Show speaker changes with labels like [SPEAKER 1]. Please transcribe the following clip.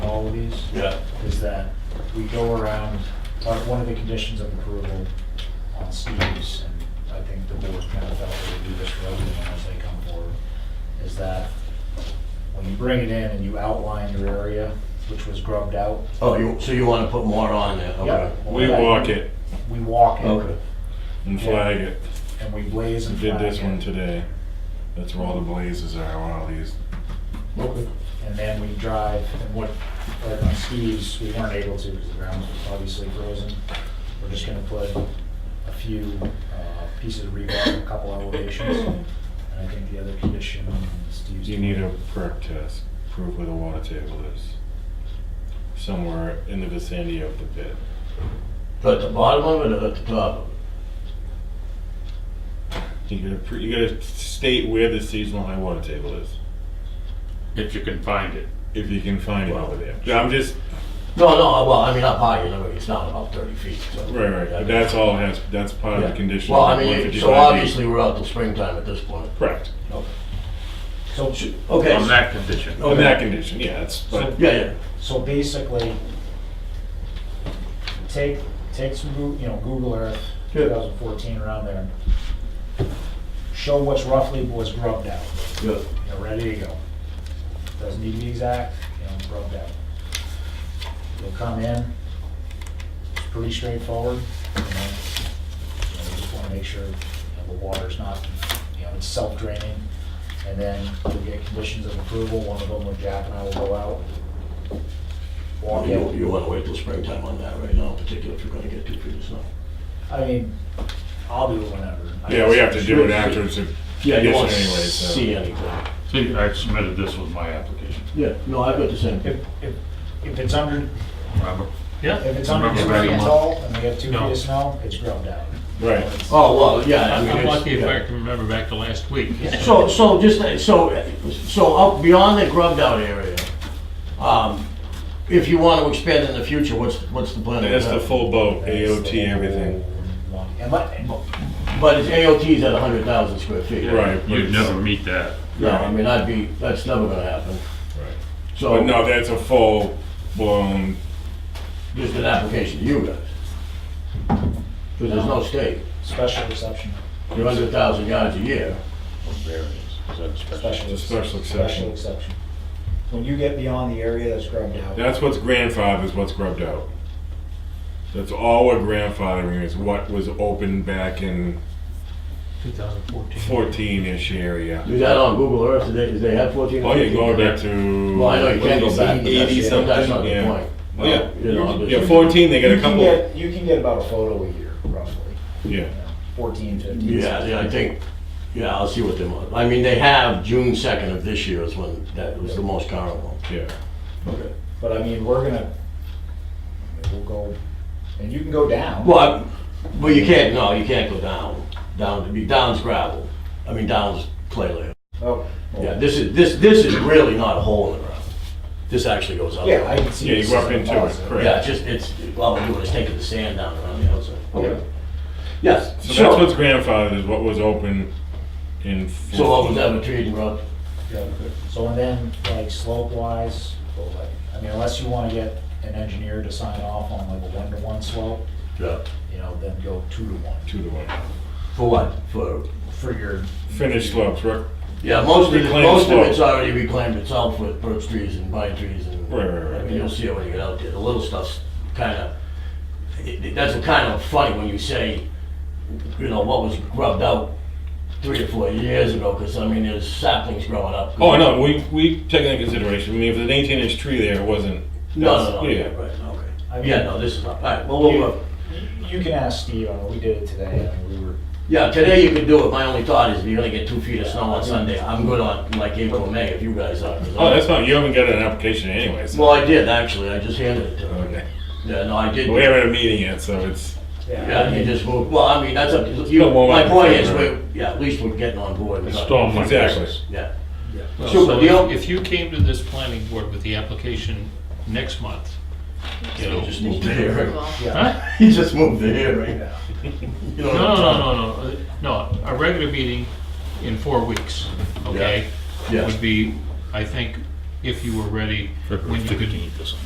[SPEAKER 1] committees.
[SPEAKER 2] Yeah.
[SPEAKER 1] Is that we go around, uh, one of the conditions of approval on CDs, and I think the board kind of felt they would do this for everyone as they come forward, is that when you bring it in and you outline your area, which was grubbed out,
[SPEAKER 3] Oh, you, so you wanna put more on there? okay.
[SPEAKER 1] Yeah.
[SPEAKER 2] We walk it
[SPEAKER 1] we walk
[SPEAKER 3] Okay.
[SPEAKER 1] it
[SPEAKER 2] and flag it.
[SPEAKER 1] and we blaze and
[SPEAKER 2] We
[SPEAKER 1] flag
[SPEAKER 2] Did this
[SPEAKER 1] it.
[SPEAKER 2] one today. That's where all the blazes are, where all these.
[SPEAKER 3] Okay.
[SPEAKER 1] and then we drive, and what, like on skis, we weren't able to because the ground was obviously frozen. We're just gonna put a few uh, pieces of rebar, a couple elevations, and I think the other condition Steve's.
[SPEAKER 2] You need a perk test, prove where the water table is. Somewhere in the vicinity of the pit.
[SPEAKER 3] So at the bottom of it or at the top of it?
[SPEAKER 2] You gotta, pr- you gotta state where the seasonal high water table is,
[SPEAKER 4] if you can find it.
[SPEAKER 2] if you can find it over there. I'm just,
[SPEAKER 3] No, no, well, I mean, up high, you know, it's not about thirty feet, so.
[SPEAKER 2] right, right, but that's all has, that's part of the
[SPEAKER 3] Yeah.
[SPEAKER 2] condition.
[SPEAKER 3] Well,
[SPEAKER 2] of
[SPEAKER 3] I mean,
[SPEAKER 2] 155
[SPEAKER 3] so
[SPEAKER 2] feet.
[SPEAKER 3] obviously, we're out till springtime at this point.
[SPEAKER 2] Correct,
[SPEAKER 1] So,
[SPEAKER 3] Okay.
[SPEAKER 4] On that condition.
[SPEAKER 2] in that condition, yeah, it's, but,
[SPEAKER 1] So-
[SPEAKER 3] Yeah, yeah,
[SPEAKER 1] so basically, take, take some, Goo- you know, Google Earth,
[SPEAKER 3] Yeah.
[SPEAKER 1] 2014, around there. Show what's roughly was grubbed out.
[SPEAKER 3] yeah.
[SPEAKER 1] you know, ready to go. Doesn't need to be exact, you know, broke out. You'll come in, it's pretty straightforward, you know, you know, we just wanna make sure, you know, the water's not, you know, it's self-draining. And then you'll get conditions of approval, one of them with Jack and I will go out. Walk
[SPEAKER 3] You,
[SPEAKER 1] it,
[SPEAKER 3] you wanna wait till springtime on that right now, particularly if you're gonna get two feet of snow.
[SPEAKER 1] I mean, I'll do it whenever. I
[SPEAKER 2] yeah, we have to do it after it's a
[SPEAKER 3] You
[SPEAKER 2] condition
[SPEAKER 3] won't
[SPEAKER 2] anyway, so.
[SPEAKER 3] See anything.
[SPEAKER 4] See, I submitted this with my application.
[SPEAKER 3] Yeah, no, I've got the same.
[SPEAKER 1] If, if, if it's under,
[SPEAKER 4] Remember? Yeah.
[SPEAKER 1] if it's under
[SPEAKER 4] Remember
[SPEAKER 1] two
[SPEAKER 4] back a
[SPEAKER 1] feet
[SPEAKER 4] month.
[SPEAKER 1] tall and we have two feet
[SPEAKER 4] No.
[SPEAKER 1] of snow, it's ground out.
[SPEAKER 2] Right,
[SPEAKER 3] Oh, well, yeah, I mean.
[SPEAKER 4] I'm
[SPEAKER 3] it's-
[SPEAKER 4] lucky if
[SPEAKER 3] yeah.
[SPEAKER 4] I can remember back to last week.
[SPEAKER 3] So, so just, so, so up beyond the grubbed out area, um, if you want to expand in the future, what's, what's the plan?
[SPEAKER 2] that's the full boat, AOT, everything,
[SPEAKER 1] And let,
[SPEAKER 3] But it's AOT's at hundred thousand square feet.
[SPEAKER 2] right. but
[SPEAKER 4] You'd
[SPEAKER 2] it's-
[SPEAKER 4] never meet that.
[SPEAKER 3] No, I mean, I'd be, that's never gonna happen.
[SPEAKER 2] Right. But
[SPEAKER 3] So,
[SPEAKER 2] no, that's a full blown,
[SPEAKER 3] just an application to you guys. Because there's no state,
[SPEAKER 1] Special exception.
[SPEAKER 3] you're under a thousand yards a year.
[SPEAKER 1] Special
[SPEAKER 2] a special
[SPEAKER 1] Special
[SPEAKER 2] exception.
[SPEAKER 1] exception. When you get beyond the area that's grubbed out,
[SPEAKER 2] That's what's grandfathered is what's grubbed out. That's all we're grandfathering is what was open back in
[SPEAKER 4] 2014.
[SPEAKER 2] fourteen-ish area.
[SPEAKER 3] Is that on Google Earth, do they, do they have fourteen?
[SPEAKER 2] Oh, you're going back to.
[SPEAKER 3] Well, I know you can't go back, but that's,
[SPEAKER 2] Eighty something,
[SPEAKER 3] that's not the
[SPEAKER 2] yeah.
[SPEAKER 3] point.
[SPEAKER 2] Well, Yeah,
[SPEAKER 3] You know, but-
[SPEAKER 2] yeah, fourteen, they got
[SPEAKER 1] you
[SPEAKER 2] a
[SPEAKER 1] can
[SPEAKER 2] couple,
[SPEAKER 1] get, you can get about a photo a year, roughly,
[SPEAKER 2] yeah.
[SPEAKER 1] you know, fourteen, fifteen.
[SPEAKER 3] Yeah, yeah, I think, yeah, I'll see what they want. I mean, they have June second of this year is when that was the most current one.
[SPEAKER 2] Yeah,
[SPEAKER 3] Okay.
[SPEAKER 1] But I mean, we're gonna, we'll go, and you can go down.
[SPEAKER 3] Well, I- well, you can't, no, you can't go down, down, it'd be down's gravel, I mean, down's clay layer.
[SPEAKER 1] Oh, well,
[SPEAKER 3] Yeah, this is, this, this is really not a hole in the ground. This actually goes up.
[SPEAKER 1] Yeah, I can see.
[SPEAKER 2] yeah,
[SPEAKER 1] this
[SPEAKER 2] you go up
[SPEAKER 1] is a
[SPEAKER 2] into
[SPEAKER 1] deposit.
[SPEAKER 2] it,
[SPEAKER 3] Yeah, it's
[SPEAKER 2] correct.
[SPEAKER 3] just, it's, all we're doing is taking the sand down around the outside. Okay. Yes,
[SPEAKER 2] So that's what's
[SPEAKER 3] so,
[SPEAKER 2] grandfathered is what was open in.
[SPEAKER 3] so what was
[SPEAKER 2] 14.
[SPEAKER 3] ever treated, Rob?
[SPEAKER 1] Yeah. So and then, like slope wise, I mean, unless you wanna get an engineer to sign off on like a one-to-one slope,
[SPEAKER 3] Yeah.
[SPEAKER 1] you know, then go two-to-one
[SPEAKER 2] Two to one.
[SPEAKER 3] For what? For
[SPEAKER 1] for your
[SPEAKER 2] Finished slopes, right,
[SPEAKER 3] Yeah, most of, it-
[SPEAKER 2] Reclaimed
[SPEAKER 3] most of
[SPEAKER 2] slope.
[SPEAKER 3] it's already reclaimed itself with birch trees and pine trees and.
[SPEAKER 2] Right, right, right.
[SPEAKER 3] I mean, you'll see it when you get out there, the little stuff's kinda, it, it- that's kind of funny when you say, you know, what was grubbed out three or four years ago, cause I mean, there's saplings growing up.
[SPEAKER 2] Oh, no, we, we take that into consideration. I mean, if there's an eighteen inch tree there, it wasn't.
[SPEAKER 3] No, no, no,
[SPEAKER 2] yeah.
[SPEAKER 3] yeah, right,
[SPEAKER 1] I
[SPEAKER 3] okay.
[SPEAKER 1] mean-
[SPEAKER 3] Yeah, no, this is not, alright, well, we'll,
[SPEAKER 1] You
[SPEAKER 3] we'll-
[SPEAKER 1] you can ask Steve, I mean, we did it today, I mean, we were,
[SPEAKER 3] yeah, today you could do it, my only thought is if you're gonna get two feet of snow on Sunday, I'm good on like April, May, if you guys are. 'cause
[SPEAKER 2] Oh,
[SPEAKER 3] I'm-
[SPEAKER 2] that's fine. You haven't got an application anyway, so.
[SPEAKER 3] Well, I did, actually, I just handed it to them.
[SPEAKER 2] Okay.
[SPEAKER 3] Yeah, no, I did.
[SPEAKER 2] But We haven't had a meeting yet, so it's,
[SPEAKER 3] Yeah, you just move, well, I mean, that's a, you,
[SPEAKER 2] Still won't
[SPEAKER 3] my
[SPEAKER 2] have
[SPEAKER 3] point
[SPEAKER 2] to
[SPEAKER 3] is,
[SPEAKER 2] figure it
[SPEAKER 3] we, yeah, at least we're getting on board. We're not-
[SPEAKER 4] Storm my
[SPEAKER 2] Exactly.
[SPEAKER 4] business.
[SPEAKER 3] Yeah.
[SPEAKER 4] Well,
[SPEAKER 3] Sure, but
[SPEAKER 4] So
[SPEAKER 3] the only-
[SPEAKER 4] if if you came to this planning board with the application next month, you know.
[SPEAKER 3] He just moved the hearing.
[SPEAKER 1] yeah.
[SPEAKER 4] Huh?
[SPEAKER 3] He just moved the hearing.
[SPEAKER 1] yeah.
[SPEAKER 3] You
[SPEAKER 4] No,
[SPEAKER 3] know what
[SPEAKER 4] no,
[SPEAKER 3] I'm
[SPEAKER 4] no,
[SPEAKER 3] talking-
[SPEAKER 4] no, no, uh, no, a regular meeting in four weeks, okay?
[SPEAKER 3] Yeah.
[SPEAKER 4] Would be, I think, if you were ready, when you could